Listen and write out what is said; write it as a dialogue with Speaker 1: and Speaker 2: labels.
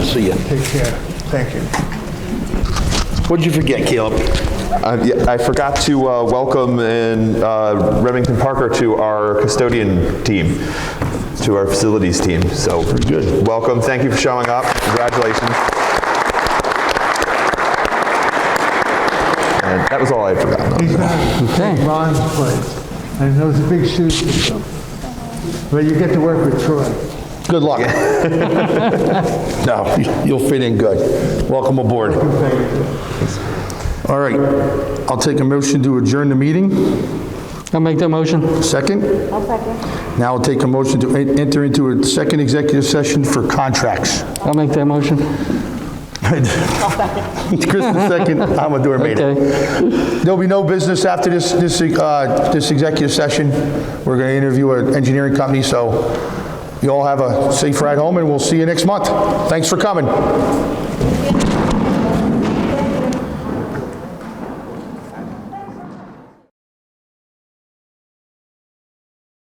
Speaker 1: see you.
Speaker 2: Take care. Thank you.
Speaker 1: What'd you forget, Caleb?
Speaker 3: Uh, yeah, I forgot to uh, welcome in uh, Remington Parker to our custodian team, to our facilities team. So good. Welcome. Thank you for showing up. Congratulations. And that was all I had forgotten.
Speaker 2: He's not take Ron's place. And those are big shoes to fill. But you get to work with Troy.
Speaker 1: Good luck. No, you- you'll fit in good. Welcome aboard.
Speaker 4: All right, I'll take a motion to adjourn the meeting.
Speaker 5: I'll make that motion.
Speaker 4: 2nd Now I'll take a motion to en- enter into a second executive session for contracts.
Speaker 5: I'll make that motion.
Speaker 4: Kristen second, Amador made it. There'll be no business after this, this, uh, this executive session. We're going to interview an engineering company, so you all have a safe ride home, and we'll see you next month. Thanks for coming.